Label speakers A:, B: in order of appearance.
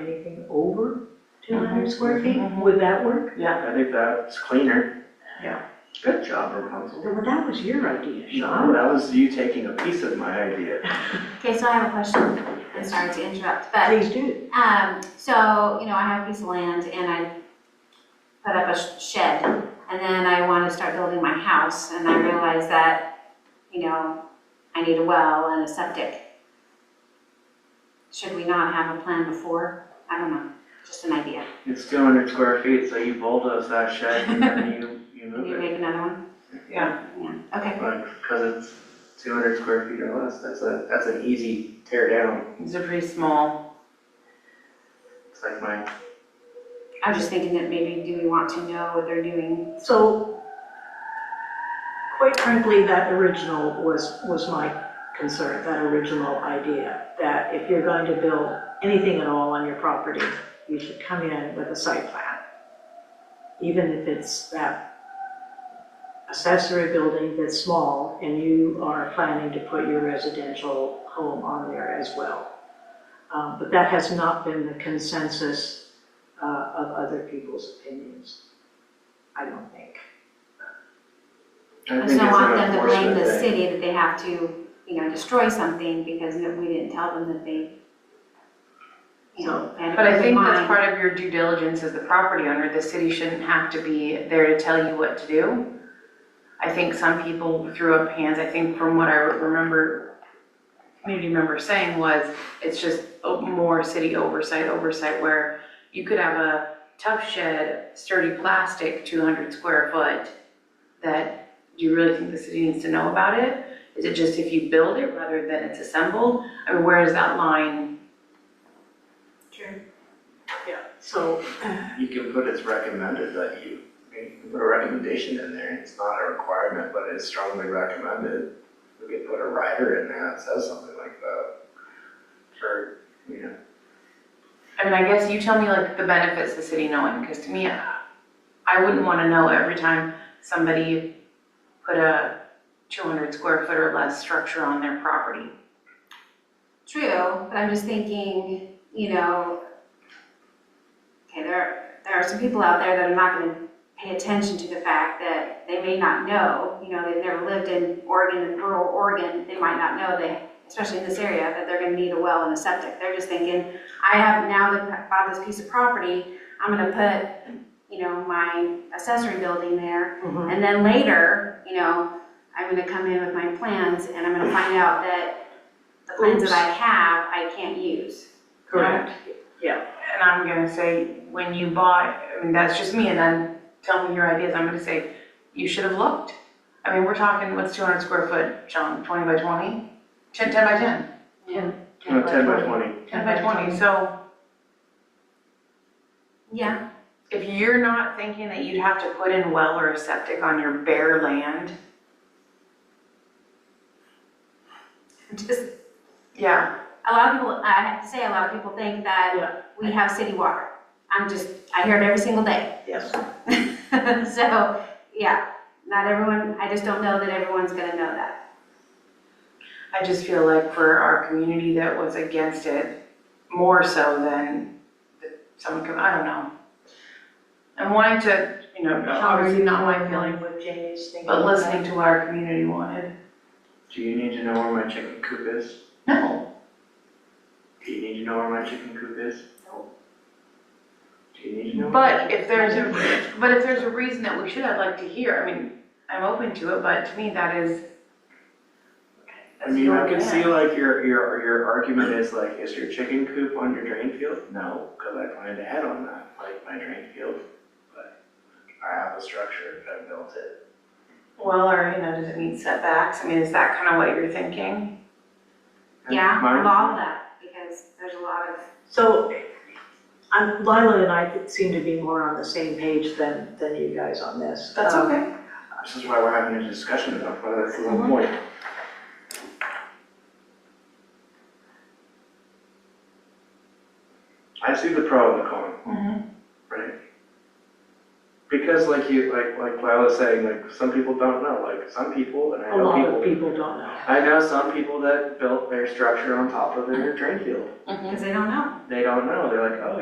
A: anything over two hundred
B: Mhm.
A: square feet,
B: Mhm.
A: would that work?
B: Yeah, I think that's cleaner.
A: Yeah.
B: Good job, Rapunzel.
A: Well, that was your idea,
B: No,
A: Sean.
B: that was you taking a piece of my idea.
C: Okay, so I have a question, I'm sorry to interrupt, but,
A: Please do.
C: um, so, you know, I have a piece of land and I put up a sh- shed, and then I wanna start building my house, and I realize that, you know, I need a well and a septic. Should we not have a plan before? I don't know, just an idea.
B: It's two hundred square feet, so you bulldoze that shed and then you, you
C: Can
B: move
C: you
B: it.
C: make another one?
A: Yeah.
C: Okay,
B: Like, cause it's two hundred square feet or less, that's a, that's an easy tear down.
D: These are pretty small.
B: It's like my,
C: I was just thinking that maybe, do we want to know what they're doing?
A: So, quite frankly, that original was, was my concern, that original idea, that if you're going to build anything at all on your property, you should come in with a site plan. Even if it's that accessory building that's small and you are planning to put your residential home on there as well. Um, But that has not been the consensus uh, of other people's opinions, I don't think.
B: I
C: I
B: think it's an
C: just don't want them to blame
B: unfortunate
C: the
B: thing.
C: city that they have to, you know, destroy something because no- we didn't tell them that they, you know, had
D: But I think that's
C: part.
D: part of your due diligence as the property owner, the city shouldn't have to be there to tell you what to do. I think some people threw up hands, I think from what I remember, community member saying was, it's just o- more city oversight, oversight where you could have a tough shed, sturdy plastic, two hundred square foot, that do you really think the city needs to know about it? Is it just if you build it rather than it's assembled? I mean, where is that line?
A: Yeah, so,
B: You can put it's recommended that you, you can put a recommendation in there, it's not a requirement, but it's strongly recommended. We could put a rider in there that says something like that. Or, you know,
D: I mean, I guess you tell me like the benefits the city knowing, because to me, I I wouldn't want to know every time somebody put a two hundred square foot or less structure on their property.
C: True, but I'm just thinking, you know, okay, there, there are some people out there that are not gonna pay attention to the fact that they may not know, you know, they've never lived in Oregon, rural Oregon, they might not know that, especially in this area, that they're gonna need a well and a septic. They're just thinking, I have, now that I bought this piece of property, I'm gonna put, you know, my accessory building there,
A: mhm.
C: and then later, you know, I'm gonna come in with my plans and I'm gonna find out that the plans that I have, I can't use.
A: correct.
D: And I'm gonna say, when you bought, I mean, that's just me, and then tell me your ideas, I'm gonna say, you should have looked. I mean, we're talking, what's two hundred square foot, John, twenty by 20? 10 10 by 10,
B: no, ten by twenty,
D: 10 by twenty, so.
C: Yeah,
D: If you're not thinking that you'd have to put in well or a septic on your bare land,
C: just,
D: yeah,
C: a lot of people, I have to say, a lot of people think
A: Yeah.
C: that we have city water. I'm just, I hear it every single day.
A: Yes.
C: So, yeah, not everyone, I just don't know that everyone's gonna know that.
D: I just feel like for our community that was against it, more so than someone could, I don't know. I'm wanting to, you know, obviously not my feeling,
A: With Jamie's thinking.
D: but listening to what our community wanted.
B: do you need to know where my chicken coop is?
D: No,
B: Do you need to know where my chicken coop is?
C: No.
B: Do you need to know? where-
D: but if there's a, but if there's a reason that we should, I'd like to hear, I mean, I'm open to it, but to me that is.
B: I mean, I can
D: that's your
B: see
D: land.
B: like your, your, your argument is like, is your chicken coop on your drain field? No, cause I planned ahead on that, like my drain field, but I have a structure, I built it.
D: Well, or, you know, does it meet setbacks? I mean, is that kind of what you're thinking?
B: And
C: Yeah,
B: my-
C: I'm all that, because there's a lot of,
A: So, I'm, Lila and I seem to be more on the same page than, than you guys on this. Um,
D: okay.
B: This is why we're having a discussion about whether this is a point. I see the pro and the con,
D: Mhm.
B: right? Because like you, like, like Lila's saying, like, some people don't know, like, some people, and I
A: A
B: know
A: lot of
B: people,
A: people don't know.
B: I know some people that built their structure on top of their drain field.
D: Mm-hmm.
C: because they don't know.
B: They don't know, they're like, oh,